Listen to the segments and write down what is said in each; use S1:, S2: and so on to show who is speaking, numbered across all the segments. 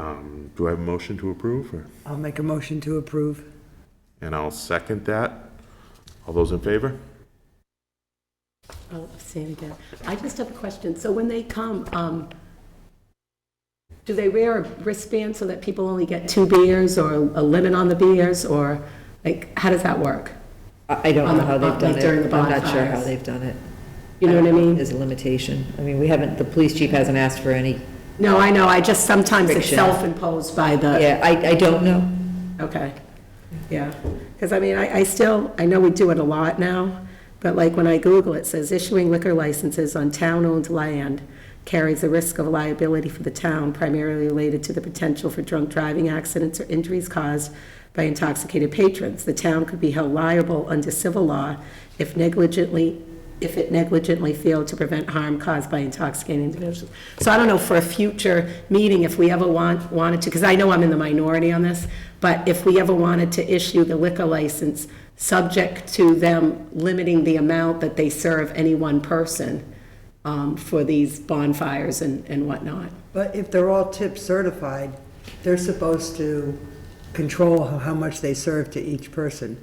S1: Um, Do I have a motion to approve? or-
S2: I'll make a motion to approve.
S1: And I'll second that. All those in favor?
S3: I'll say it again. Oh, I just have a question. So when they come, um, do they wear a wristband so that people only get two beers or a limit on the beers? Or like, how does that work?
S4: I I don't
S3: On
S4: know
S3: the-
S4: how
S3: on-
S4: they've done
S3: like during
S4: it.
S3: the
S4: I'm not sure how
S3: bonfires.
S4: they've done it.
S3: You know what I mean?
S4: There's a limitation. I mean, we haven't, the police chief hasn't asked for any.
S3: No, I know, I just, sometimes it's
S4: Friction.
S3: self-imposed by the,
S4: Yeah, I, I don't know.
S3: okay, yeah. Because I mean, I, I still, I know we do it a lot now, but like when I Google, it says issuing liquor licenses on town-owned land carries the risk of liability for the town primarily related to the potential for drunk driving accidents or injuries caused by intoxicated patrons. The town could be held liable under civil law if negligently, if it negligently failed to prevent harm caused by intoxicated individuals. So I don't know, for a future meeting, if we ever want, wanted to, because I know I'm in the minority on this, but if we ever wanted to issue the liquor license, subject to them limiting the amount that they serve any one person um, for these bonfires and and whatnot.
S2: But if they're all tip certified, they're supposed to control how how much they serve to each person.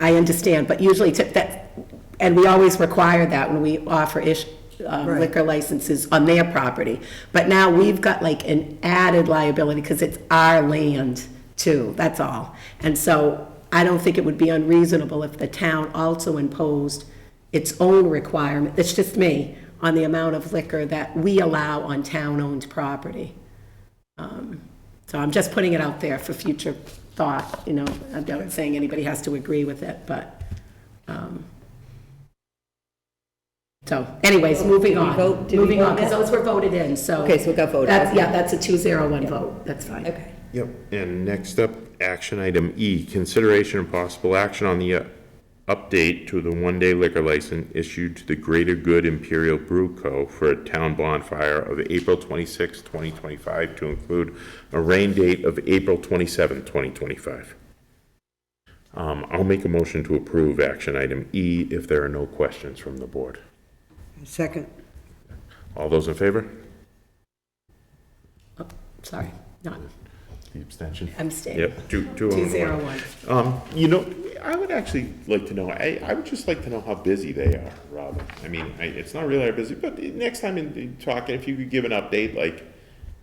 S3: I understand, but usually tip that, and we always require that when we offer ish, uh,
S2: Right.
S3: liquor licenses on their property. But now we've got like an added liability because it's our land too, that's all. And so I don't think it would be unreasonable if the town also imposed its own requirement, that's just me, on the amount of liquor that we allow on town-owned property. So I'm just putting it out there for future thought, you know, I'm not saying anybody has to agree with it, but, um, so anyways, moving
S4: Did we
S3: on,
S4: vote- did we
S3: moving on,
S4: vote
S3: because
S4: that?
S3: those were voted in, so.
S4: Okay, so it got voted,
S3: That's, yeah,
S4: okay.
S3: that's a two zero one vote, that's fine.
S4: Okay.
S1: Yep. And next up, action item E, consideration and possible action on the uh, update to the one-day liquor license issued to the Greater Good Imperial Brew Co. for a town bonfire of April 26, 2025, to include a rain date of April 27, 2025. Um, I'll make a motion to approve action item E if there are no questions from the board.
S2: Second,
S1: All those in favor?
S3: Oh, Sorry, not,
S1: The abstention.
S3: I'm staying.
S1: Yep, two, two
S3: Two
S1: and
S3: zero
S1: one.
S3: one.
S1: Um, you know, I would actually like to know, I, I would just like to know how busy they are, Robin. I mean, I, it's not really our busy, but the next time in- in talking, if you could give an update, like,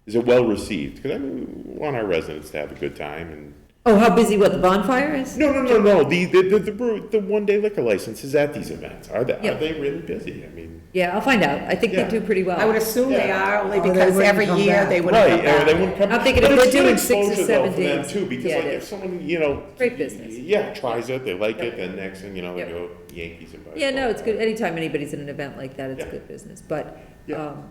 S1: is it well received? Cause I mean, we want our residents to have a good time and,
S4: Oh, how busy what the bonfire is?
S1: no, no, no, no, the, the, the, the brew, the one day liquor license is at these events. Are they,
S4: Yeah.
S1: are they really busy? I mean,
S4: Yeah, I'll find out. I think they
S1: Yeah.
S4: do pretty well.
S3: I would assume they are, only
S2: Oh, they
S3: because
S2: wouldn't
S3: every
S2: come
S3: year
S2: back.
S3: they would
S1: right,
S3: have
S1: or they wouldn't come.
S4: I'm thinking
S1: but
S4: if
S1: it's
S4: they're
S1: good
S4: doing six or
S1: exposure, though,
S4: seven
S1: for them,
S4: days.
S1: Too, because
S4: Yeah,
S1: like
S4: it
S1: if
S4: is.
S1: someone, you know.
S4: Great business.
S1: Yeah, tries it, they like it,
S4: Yeah.
S1: then next thing you know, they
S4: Yeah.
S1: go Yankees and.
S4: Yeah, no, it's good, anytime anybody's in an event like that, it's
S1: Yeah.
S4: good business, but,
S1: Yeah.
S4: um,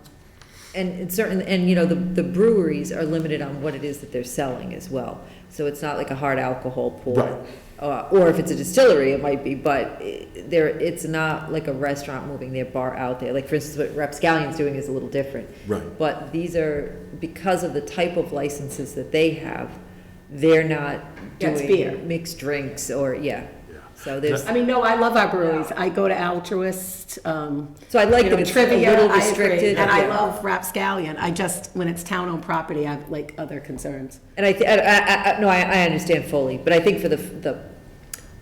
S4: and, and certain, and, you know, the, the breweries are limited on what it is that they're selling as well, so it's not like a hard alcohol
S1: Right.
S4: pool. Uh, or if it's a distillery, it might be, but i- there, it's not like a restaurant moving their bar out there, like, for instance, what Rapscallion's doing is a little different.
S1: Right.
S4: But these are, because of the type of licenses that they have, they're not
S3: Yeah, it's beer.
S4: doing mixed drinks, or, yeah, so there's.
S3: I mean, no, I love our breweries. I go to Altruist, um.
S4: So I like
S3: you
S4: that
S3: know,
S4: it's a little
S3: trivia, I agree.
S4: restricted.
S3: And I
S4: Yeah.
S3: love Rapscallion. I just, when it's town-owned property, I have like other concerns.
S4: And I, thi- I, I, I- no, I, I understand fully, but I think for the, the,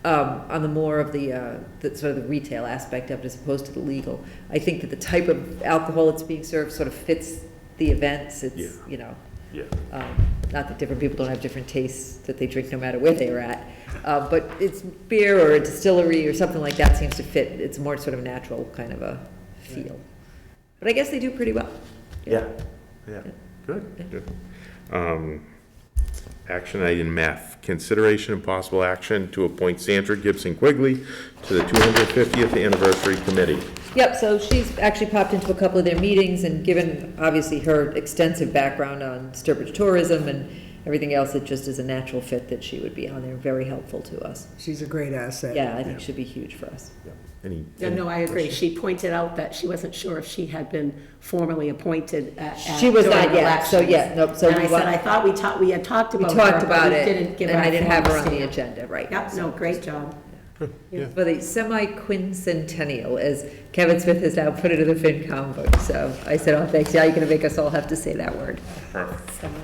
S4: um, on the more of the, uh, the sort of the retail aspect of it as opposed to the legal, I think that the type of alcohol that's being served sort of fits the events,
S1: Yeah.
S4: it's, you know,
S1: Yeah.
S4: um, not that different people don't have different tastes that they drink no matter where they are at, uh, but it's beer or a distillery or something like that seems to fit, it's more sort of natural kind of a feel. But I guess they do pretty well.
S1: Yeah, yeah, good, good. Um, Action item F, consideration and possible action to appoint Sandra Gibson Quigley to the 250th Anniversary Committee.
S4: Yep, so she's actually popped into a couple of their meetings, and given, obviously, her extensive background on Sturbridge tourism and everything else, it just is a natural fit that she would be on there, very helpful to us.
S2: she's a great asset.
S4: Yeah, I think she'd be huge for us.
S1: Any?
S3: No, no, I agree. She pointed out that she wasn't sure if she had been formally appointed at. at-
S4: She was not
S3: during
S4: yet, so
S3: elections.
S4: yeah, nope, so
S3: And
S4: we
S3: I said,
S4: want-
S3: I thought we talked, we had talked
S4: We
S3: about her.
S4: talked
S3: but
S4: about
S3: we
S4: it,
S3: didn't give
S4: and I didn't have her on
S3: formal
S4: the
S3: stand.
S4: agenda, right.
S3: Yep, no, great job.
S1: Yeah.
S4: For the semi-quincentennial, as Kevin Smith has now put it in the FinCom book, so I said, oh, thanks, yeah, you're gonna make us all have to say that word.
S1: Perfect.
S3: Semi-